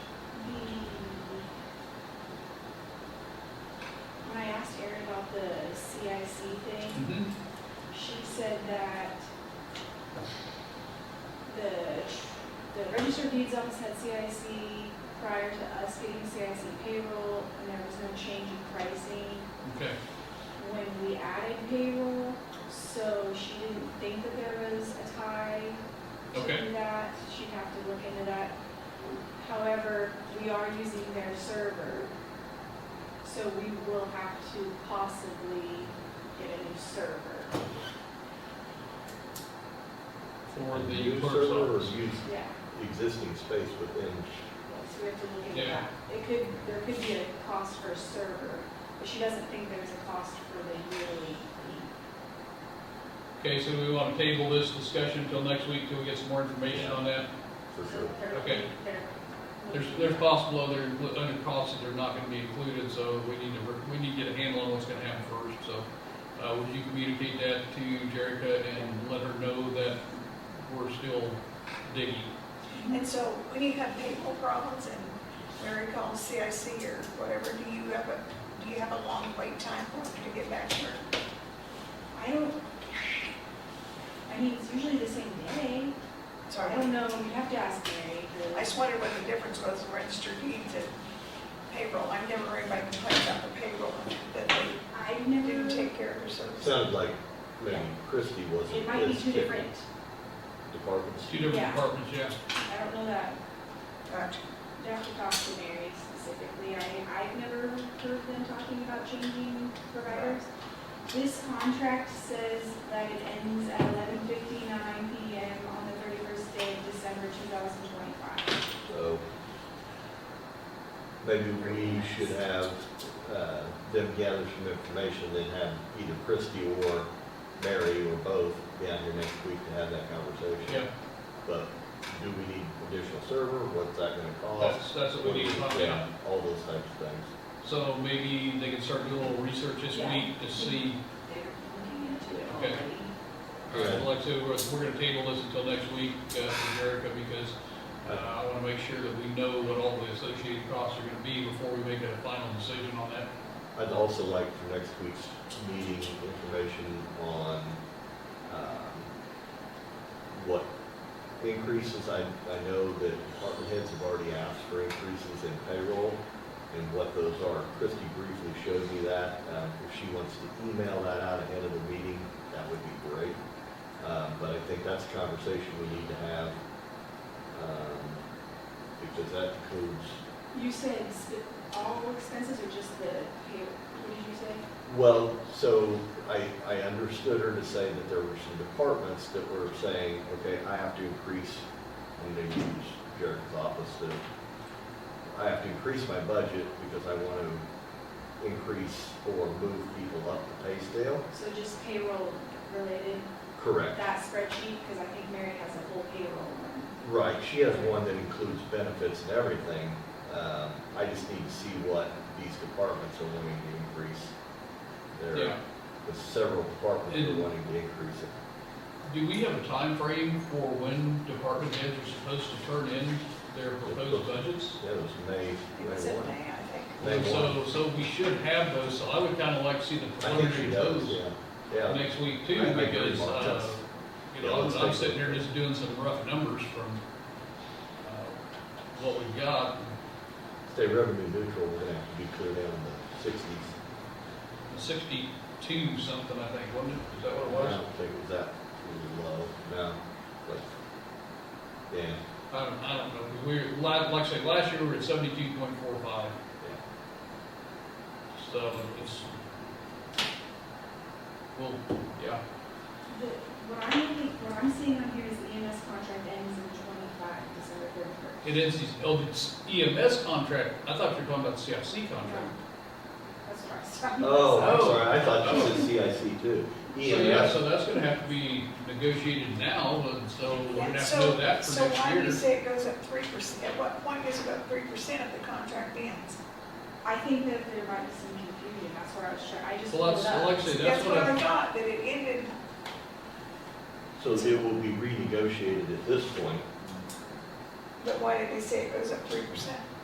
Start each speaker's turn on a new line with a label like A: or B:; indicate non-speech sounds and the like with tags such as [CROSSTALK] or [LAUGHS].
A: EDC thing,
B: Mm-hmm.
A: she said that the, the register of deeds office had CIC prior to us getting CIC payroll, and there was no change in pricing
B: Okay,
A: when we added payroll, so she didn't think that there was a tie to
B: Okay.
A: do that. She'd have to look into that. However, we are using their server, so we will have to possibly get a new server.
B: for the
C: Use
B: clerk's
C: server or
B: office.
C: Use
A: Yeah,
C: existing space within,
A: so we have to look into
B: Yeah.
A: that. It could, there could be a cost for a server, but she doesn't think there's a cost for the yearly fee.
B: Okay, so we want to table this discussion until next week till we get some more information on that.
C: for
A: So
C: sure.
A: there-
B: Okay.
A: there-
B: There's, there's possible other, other costs that are not gonna be included, so we need to, work- we need to get a handle on what's gonna happen first, so. Uh, would you communicate that to Jerica and let her know that we're still digging?
D: And so when you have payroll problems and Mary calls CIC or whatever, do you have a, do you have a long wait time for them to get back to her?
A: I don't, I mean, it's usually the same day.
D: So
A: I
D: I
A: don't know, you have to ask Mary.
D: I just wondered what the difference was in registered deeds and payroll. I've never heard anybody complain about the payroll, that they
A: I've
D: didn't
A: never,
D: take care of their services.
C: Sounds like maybe Christie wasn't.
A: it might be
C: as
A: two
C: tech-
A: different.
C: Departments.
B: It's two different
A: Yeah.
B: departments, yeah.
A: I don't know that.
D: Gotcha.
A: You have to talk to Mary specifically. I, I've never heard them talking about changing providers. This contract says that it ends at eleven fifty-nine PM on the thirty-first day of December two thousand twenty-five.
C: So maybe we should have uh, them gather some information, then have either Christie or Mary or both down here next week to have that conversation.
B: Yeah,
C: But do we need additional server? What's that gonna cost?
B: that's, that's what we need to talk about.
C: Yeah, All those types of things.
B: So maybe they can start doing a little research this
A: Yeah.
B: week to see.
A: They're looking into it
B: Okay.
A: already.
B: All right, well, like I said, we're, we're gonna table this until next week, uh, for Erica, because, uh, I wanna make sure that we know what all the associated costs are gonna be before we make a final decision on that.
C: I'd also like for next week's meeting information on um, what increases, I, I know that department heads have already asked for increases in payroll and what those are. Christie briefly showed me that. Um, If she wants to email that out ahead of the meeting, that would be great. Um, But I think that's a conversation we need to have um, because that includes
A: You said sp- all expenses or just the pay, what did you say?
C: Well, so I, I understood her to say that there were some departments that were saying, okay, I have to increase, and they use Jared's office to, I have to increase my budget because I want to increase or move people up the pay scale.
A: So just payroll related,
C: Correct.
A: that spreadsheet, because I think Mary has a whole payroll one.
C: Right, she has one that includes benefits and everything. Um, I just need to see what these departments are wanting to increase.
B: Yeah.
C: There, the several departments are wanting to increase it.
B: Do we have a time frame for when department heads are supposed to turn in their proposed budgets?
C: Yeah, it was May,
D: It was
C: May
D: in
C: one.
D: May, I think.
C: They
B: So,
C: want-
B: so we should have those, so I would kinda like to see the
C: I think
B: preliminary
C: she
B: those
C: does, yeah, yeah.
B: next week
C: I- I
B: too,
C: agree,
B: because,
C: Mark,
B: uh,
C: that's-
B: you
C: yeah,
B: know, I'm
C: let's
B: I'm
C: take
B: sitting
C: a
B: here
C: look.
B: just doing some rough numbers from, uh, what we've got,
C: Stay revenue neutral, we're gonna have to be clear down in the sixties.
B: sixty-two something, I think, wasn't it? Is that what Oh, it
C: I
B: was?
C: don't think it was that really low, no, but, yeah,
B: I don't, I don't know, we were, like, like I said, last year we were at seventy-two point four five,
C: yeah.
B: so it's, well, yeah,
A: The- What I'm, looking- what I'm seeing on here is the EMS contract ends in twenty-five, December thirty-first.
B: it is, these- oh, it's EMS contract, I thought you were talking about the CIC contract.
A: That's what I was talking about.
C: Oh,
B: Oh.
C: I'm sorry, I thought you
D: Oh.
C: said CIC
D: [LAUGHS]
C: too. E
B: So, yeah,
C: EMS,
B: so that's gonna have to be negotiated now, and so we're gonna
D: And
B: have to
D: so,
B: know that for
D: so why do you
B: next year.
D: say it goes up three percent? At what point does it go up three percent if the contract ends?
A: I think that there might be some confusion, that's where I was trying, I just
B: Well,
A: pulled it
B: that's,
A: up.
B: well, like I said,
D: That's
B: that's what
D: what I
B: I,
D: thought, that it ended,
C: so it will be renegotiated at this point.
D: but why did they say it goes up three percent?